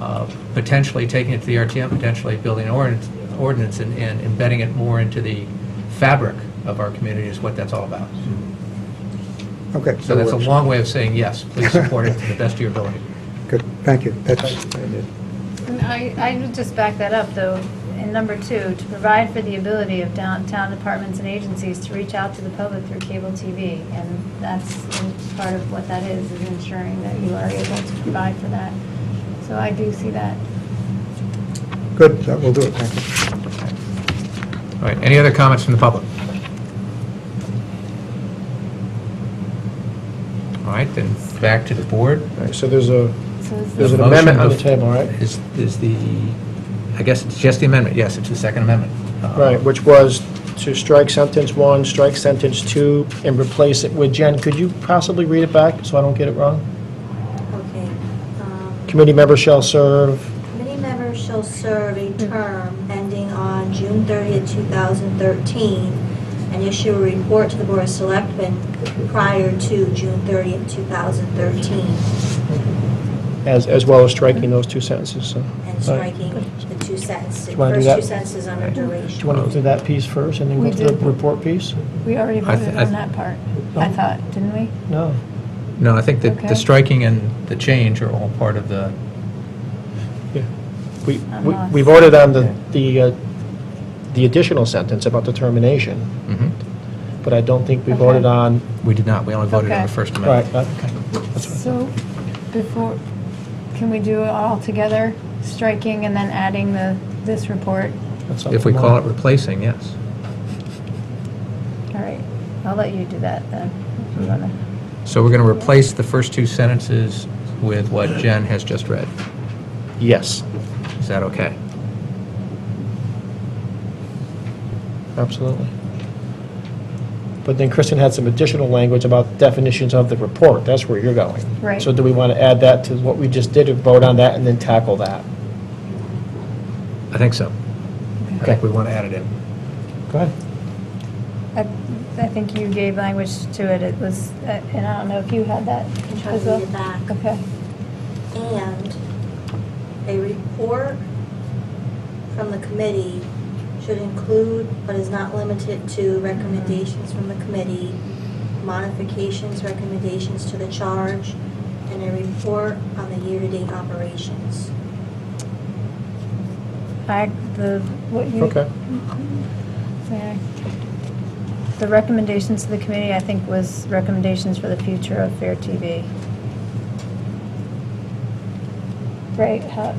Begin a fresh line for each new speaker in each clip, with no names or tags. uh, potentially taking it to the RTM, potentially building an ordinance- ordinance and and embedding it more into the fabric of our community is what that's all about.
Okay.
So that's a
that works.
long way of saying, yes, please support it to the best of your ability.
Good, thank you. That's,
And I, I would just back that up, though, in number two, to provide for the ability of downtown departments and agencies to reach out to the public through cable TV. And that's part of what that is, is ensuring that you are able to provide for that. So I do see that.
good, that will do it, thank you.
All right, any other comments from the public? All right, then, back to the board.
All right, so there's a,
So is
there's
this-
an
The motion
amendment on the
bef-
table, right?
Is, is the, I guess it's just the amendment, yes, it's the Second Amendment. Uh,
Right, which was to strike sentence one, strike sentence two, and replace it with, Jen, could you possibly read it back so I don't get it wrong?
Okay. um,
Committee member shall serve,
Committee members shall serve a term ending on June 30th, 2013, and issue a report to the Board of Selectmen prior to June 30th, 2013,
as, as well as striking those two sentences, so.
and striking the two sentences,
you wanna do
first
that?
two sentences under
Do
duration.
you want to do that piece first and then
We
go to the
did.
report piece?
We already
I th-
voted
I
on
th-
that part, I thought, didn't we?
No.
No, I think that
Okay.
the striking and the change are all part of the,
Yeah. We,
I'm
we-
lost.
we voted on the, the, uh, the additional sentence about the termination,
Mhm.
but I don't think we
Okay.
voted on,
we did not, we only voted on
Okay.
the First
right,
Amendment.
uh, okay.
So before, can we do it all together, striking and then adding the, this report?
that's
If we
something
call
more.
it replacing, yes.
All right, I'll let you do that then. if you wanna.
So we're going to replace the first two sentences with what Jen has just read.
Yes,
Is that okay?
absolutely. But then Kristen had some additional language about definitions of the report, that's where you're going.
Right.
So do we want to add that to what we just did, or vote on that and then tackle that?
I think so. I think
Okay.
we want to add it in.
Go ahead.
I I think you gave language to it, it was, uh, and I don't know if you had that
Try to
as well?
read it back.
Okay,
And a report from the committee should include, but is not limited to, recommendations from the committee, modifications, recommendations to the charge, and a report on the year-to-date operations.
I, the, what you.
Okay.
Yeah. The recommendations to the committee, I think, was recommendations for the future of Fair TV. Right, how,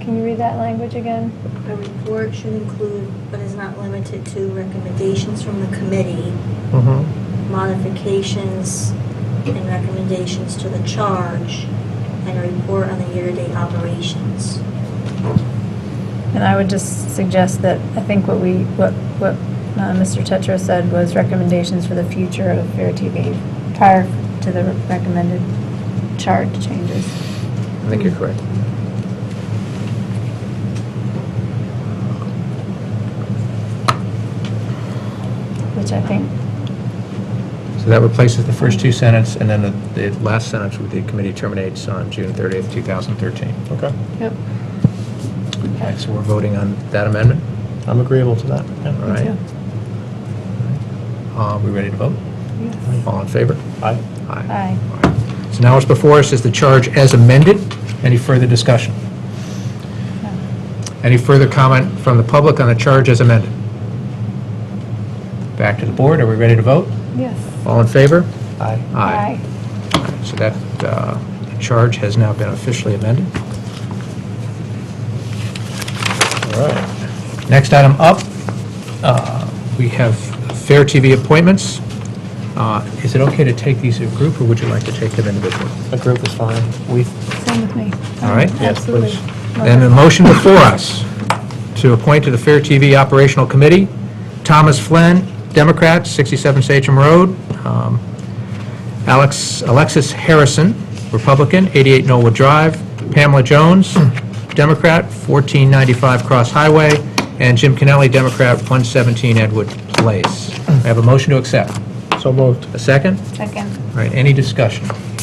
can you read that language again?
A report should include, but is not limited to, recommendations from the committee,
Mm-hmm.
modifications, and recommendations to the charge, and a report on the year-to-date operations.
And I would just suggest that, I think what we, what, what uh, Mr. Tetra said was recommendations for the future of Fair TV prior to the recommended charge changes.
I think you're correct.
Which I think,
So that replaces the first two sentences, and then the the last sentence with the committee terminates on June 30th, 2013.
Okay,
yep.
All right, so we're voting on that amendment?
I'm agreeable to that.
All right. Uh, We ready to vote? All in favor?
Aye.
Aye.
All right. So now what's before us is the charge as amended. Any further discussion? Any further comment from the public on the charge as amended? Back to the board, are we ready to vote?
Yes.
All in favor?
Aye.
Aye.
So that uh, charge has now been officially amended.
All right.
Next item up, uh, we have Fair TV appointments. Uh, Is it okay to take these in a group, or would you like to take them individually?
A group is fine. We,
Same with me.
All right.
Yes,
Absolutely.
please.
And the motion before us to appoint to the Fair TV Operational Committee, Thomas Flynn, Democrat, 67 Sachem Road, um, Alex, Alexis Harrison, Republican, 88 Norwood Drive, Pamela Jones, Democrat, 1495 Cross Highway, and Jim Kennelly, Democrat, 117 Edward Place. I have a motion to accept.
so moved.
A second?
Second.
All right, any discussion?